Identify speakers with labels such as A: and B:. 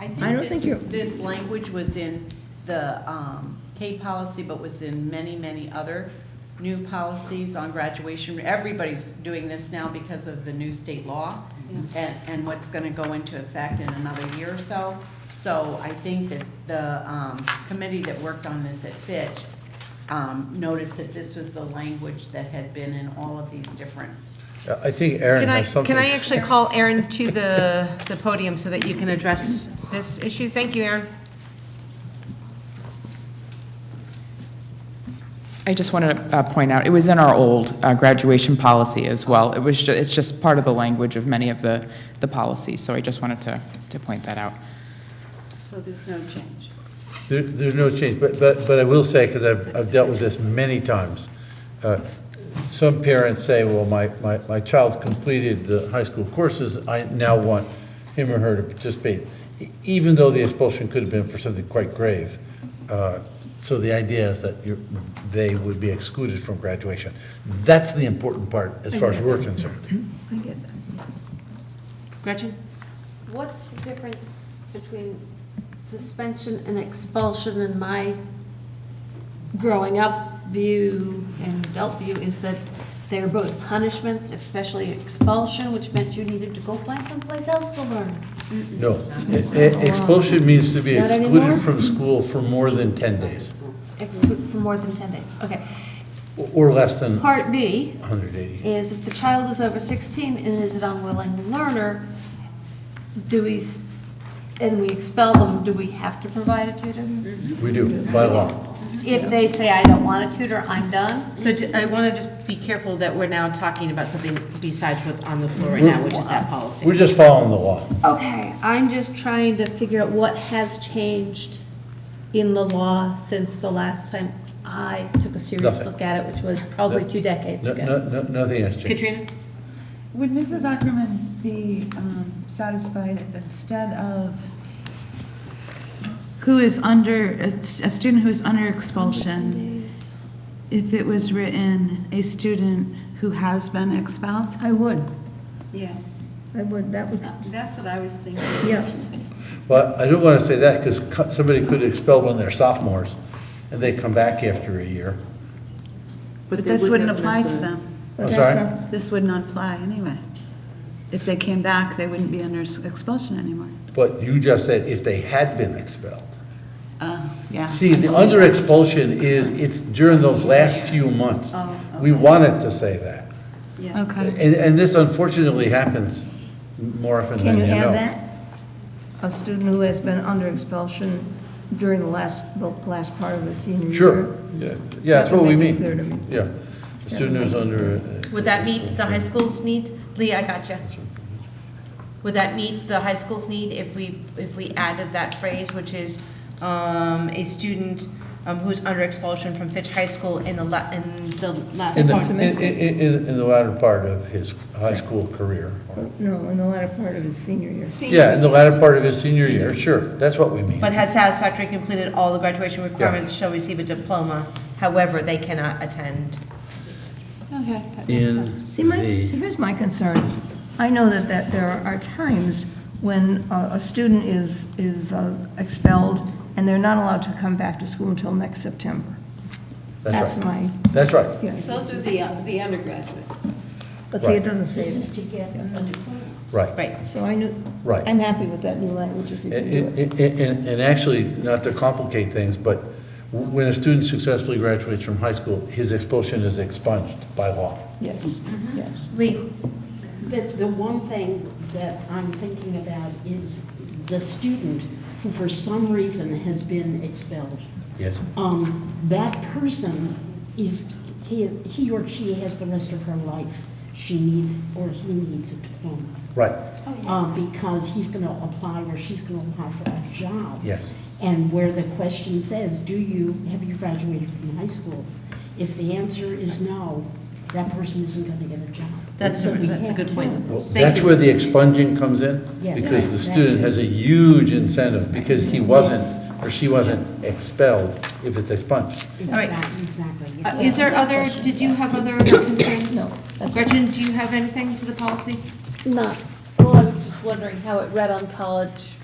A: I don't
B: this-
A: think you're-
B: This language was in the um, K policy, but was in many, many other new policies on graduation. Everybody's doing this now because of the new state law and, and what's going to go into effect in another year or so. So I think that the um, committee that worked on this at Fitch um, noticed that this was the language that had been in all of these different
C: I think Aaron
D: Can I,
C: has something.
D: can I actually call Aaron to the, the podium so that you can address this issue? Thank you, Aaron.
E: I just wanted to uh, point out, it was in our old uh, graduation policy as well. It was, ju- it's just part of the language of many of the, the policies, so I just wanted to, to point that out.
F: So there's no change.
C: There, there's no change, but, but, but I will say, because I've, I've dealt with this many times. uh, Some parents say, well, my, my, my child completed the high school courses, I now want him or her to participate, e- even though the expulsion could have been for something quite grave. Uh, So the idea is that you're, they would be excluded from graduation. That's the important part, as far as we're concerned.
A: I get that.
D: Gretchen?
F: What's the difference between suspension and expulsion in my growing up view and adult view is that they're both punishments, especially expulsion, which meant you needed to go find someplace else to learn.
C: No, E- e- expulsion means to be
F: Not anymore?
C: excluded from school for more than 10 days,
F: Exclu- for more than 10 days. Okay.
C: o- or less than
F: Part B
C: 180.
F: is if the child is over 16 and is an unwilling learner, do we, s- and we expel them, do we have to provide a tutor?
C: We do, by law.
F: If they say, I don't want a tutor, I'm done,
D: So do- I want to just be careful that we're now talking about something besides what's on the floor right now, which is that
C: We're
D: policy.
C: just following the law.
F: okay, I'm just trying to figure out what has changed in the law since the last time I took a serious
C: Nothing.
F: look at it, which was probably
C: No-
F: two decades
C: No-
F: ago.
C: no- no- Nothing has changed.
D: Katrina?
G: Would Mrs. Ackerman be um, satisfied if instead of who is under, a s- a student who is under expulsion, if it was written, a student who has been expelled?
H: I would,
I: Yeah,
H: I would, that would,
I: that's what I was thinking.
H: yeah.
C: Well, I don't want to say that because somebody could expel one of their sophomores and they come back after a year.
G: But this wouldn't apply to them.
H: but
C: I'm
H: that's
C: sorry?
H: a-
G: This would not apply anyway. If they came back, they wouldn't be under s- expulsion anymore.
C: But you just said if they had been expelled.
G: Uh, Yeah.
C: See, the under expulsion is, it's during those last few months.
H: Oh,
C: We wanted to say that.
G: Okay.
C: And, and this unfortunately happens more often than
H: Can
C: you
H: you
C: know.
H: have that? A student who has been under expulsion during the last, the last part of his senior year?
C: Sure, yeah, yeah, that's
H: That would
C: what we
H: make it
C: mean.
H: clear to me.
C: Yeah, a student who's under. uh,
D: Would that meet the high school's need? Lee, I got you. Would that meet the high school's need if we, if we added that phrase, which is um, a student um, who's under expulsion from Fitch High School in the, la- in the last
C: In the,
D: part?
C: in, in, in- in the latter part of his high school career.
H: No, in the latter part of his senior year.
C: Yeah, in the latter part of his senior year, sure, that's what we mean.
D: But has satisfactorily completed all the graduation requirements shall receive a diploma, however, they cannot attend.
F: Okay. that makes
C: In
F: sense.
H: See, my,
C: the,
H: here's my concern. I know that, that there are times when uh, a student is, is uh, expelled, and they're not allowed to come back to school until next September.
C: that's
H: That's
C: right,
H: my,
C: that's right.
H: yes.
I: Those are the, uh, the undergraduates.
H: But see,
C: Right.
H: it doesn't say that.
I: to get a diploma.
C: Right.
D: Right.
H: So I knew,
C: Right.
H: I'm happy with that new language if you can do
C: And,
H: it.
C: and, and- and actually, not to complicate things, but when a student successfully graduates from high school, his expulsion is expunged by law.
H: Yes, yes.
D: Lee,
J: The, the one thing that I'm thinking about is the student who for some reason has been expelled.
C: Yes.
J: Um, that person is, he, he or she has the rest of her life. She needs, or he needs a diploma.
C: Right,
J: Uh, because he's gonna apply or she's gonna apply for a job.
C: yes.
J: And where the question says, do you, have you graduated from high school? If the answer is no, that person isn't gonna get a job.
D: that's,
J: So we
D: that's a
J: have
D: good
J: to
D: point.
J: know.
C: Well,
D: Thank
C: That's
D: you.
C: where the expunging comes in?
J: Yes.
C: Because the
J: Yes.
C: student has a huge incentive, because he wasn't, or she wasn't expelled if it's expunged.
D: right.
J: Exactly, exactly.
D: Uh, Is there other, did you have other concerns?
H: No, that's-
D: Gretchen, do you have anything to the policy?
F: Not, well, I was just wondering how it read on college